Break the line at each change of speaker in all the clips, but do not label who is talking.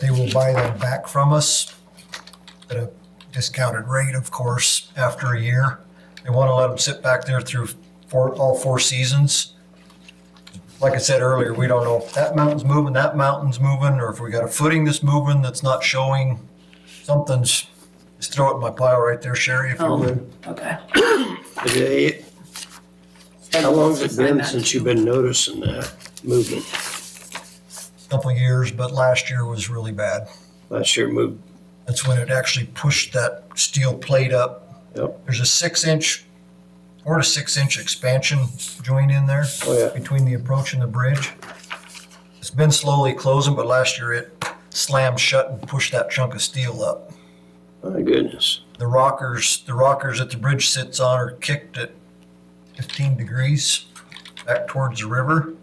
They will buy them back from us at a discounted rate, of course, after a year. They want to let them sit back there through four, all four seasons. Like I said earlier, we don't know if that mountain's moving, that mountain's moving, or if we got a footing that's moving that's not showing. Something's, just throw it in my pile right there, Sherry, if you
Oh.
would.
Okay.
Today, how long's it been since you've been noticing that movement?
Couple of years, but last year was really bad.
Last year it moved,
That's when it actually pushed that steel plate up
yep,
There's a six inch or a six inch expansion joint in there
oh yeah,
between the approach and the bridge. It's been slowly closing, but last year it slammed shut and pushed that chunk of steel up.
my goodness.
The rockers, the rockers that the bridge sits on are kicked at fifteen degrees back towards the river.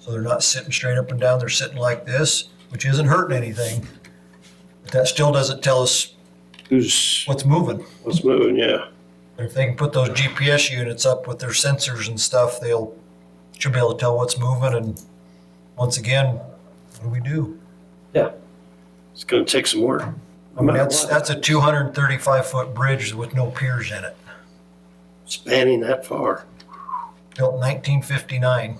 So they're not sitting straight up and down, they're sitting like this, which isn't hurting anything. But that still doesn't tell us
Who's,
what's moving.
what's moving, yeah,
If they can put those GPS units up with their sensors and stuff, they'll, should be able to tell what's moving and once again, what do we do?
it's gonna take some work.
I mean, that's, that's a two hundred and thirty-five foot bridge with no piers in it,
Spanning that far,
built nineteen fifty-nine.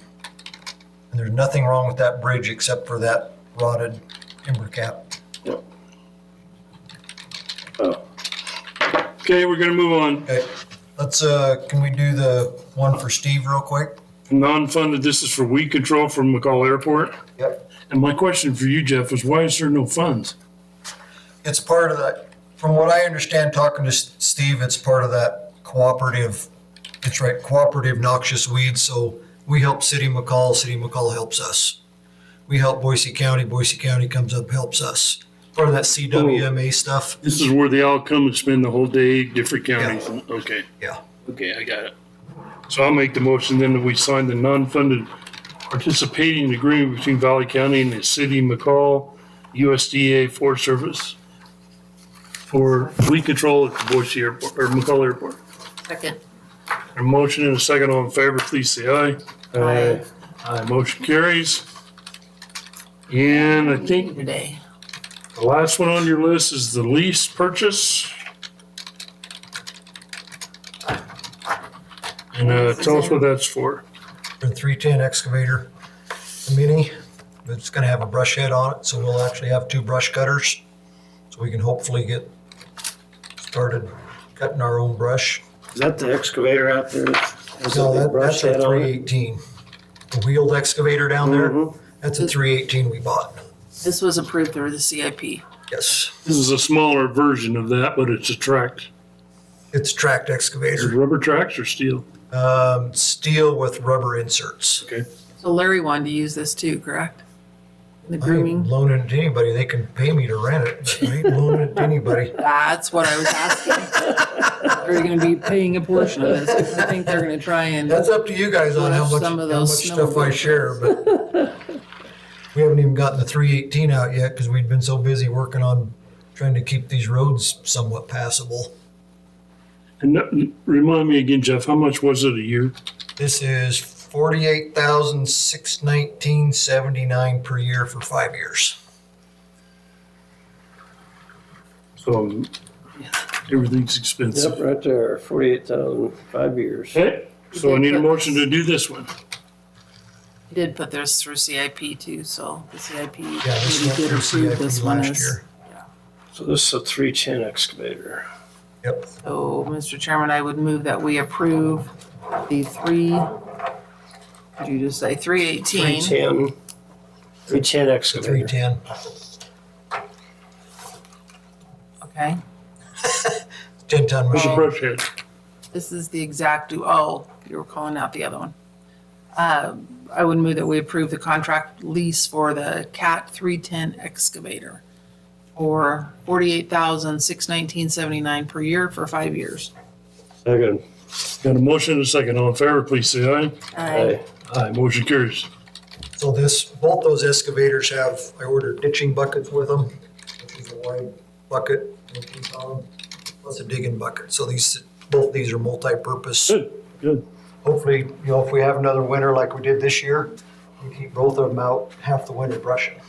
And there's nothing wrong with that bridge except for that rotted timber cap.
oh,
Okay, we're gonna move on.
Okay, let's, uh, can we do the one for Steve real quick?
Non-funded, this is for weed control from McCall Airport.
Yep.
And my question for you, Jeff, is why is there no funds?
It's part of that, from what I understand, talking to S- Steve, it's part of that cooperative, it's right, cooperative noxious weeds, so we help City McCall, City McCall helps us. We help Boise County, Boise County comes up, helps us. Part of that CWMA stuff,
This is where they all come and spend the whole day, different counties. Okay,
yeah.
okay, I got it. So I'll make the motion then that we sign the non-funded participating agreement between Valley County and the city of McCall, USDA Forest Service for weed control at the Boise Airport, or McCall Airport.
Second.
A motion and a second, all in favor, please say aye.
Aye.
Aye, motion carries. And I think
Today.
the last one on your list is the lease purchase. And uh, tell us what that's for.
For the three-ten excavator, the mini, it's gonna have a brush head on it, so we'll actually have two brush cutters. So we can hopefully get started cutting our own brush.
is that the excavator out there? Has
No,
it
that,
been brushed
that's a
yet on it?
three eighteen. The wheeled excavator down there,
Mhm.
that's a three eighteen we bought,
This was approved through the CIP.
yes.
This is a smaller version of that, but it's a tract.
It's tracked
Is it
excavator,
rubber tracks or steel?
um, steel with rubber inserts.
Okay.
So Larry wanted to use this too, correct?
I
The
ain't
grooming.
loaning it to anybody, they can pay me to rent it, but I ain't loaning it to anybody.
That's what I was asking. Are you gonna be paying a portion of this? 'Cause I think they're gonna try and,
That's up to you guys on how much, how
Some of
much
those
stuff I
snowmobiles.
share, but we haven't even gotten the three eighteen out yet, cause we'd been so busy working on trying to keep these roads somewhat passable.
And that- remind me again, Jeff, how much was it a year?
This is forty-eight thousand, six nineteen, seventy-nine per year for five years.
So everything's expensive.
Yep, right there, forty-eight thousand, five years.
Okay, so I need a motion to do this one.
he did put this through CIP too, so the CIP
Yeah, this
maybe
went
did
through
approve
CIP
this one
last
as.
year.
So this is a three-ten excavator.
Yep,
So, Mr. Chairman, I would move that we approve the three, did you just say three eighteen?
Three-ten, three-ten
three
excavator.
ten.
Okay,
Ten
Oh.
ton
Where's the
machine.
brush head?
this is the exact, oh, you were calling out the other one. Uh, I would move that we approve the contract lease for the CAT three-ten excavator for forty-eight thousand, six nineteen seventy-nine per year for five years.
Second,
Got a motion and a second. All in favor, please say aye.
aye,
Aye, motion carries.
So this, both those excavators have, I ordered ditching buckets with them, which is a wide bucket, eighteen pound, plus a digging bucket. So these, both these are multi-purpose.
Good, good.
Hopefully, you know, if we have another winter like we did this year, we keep both of them out half the winter brushing.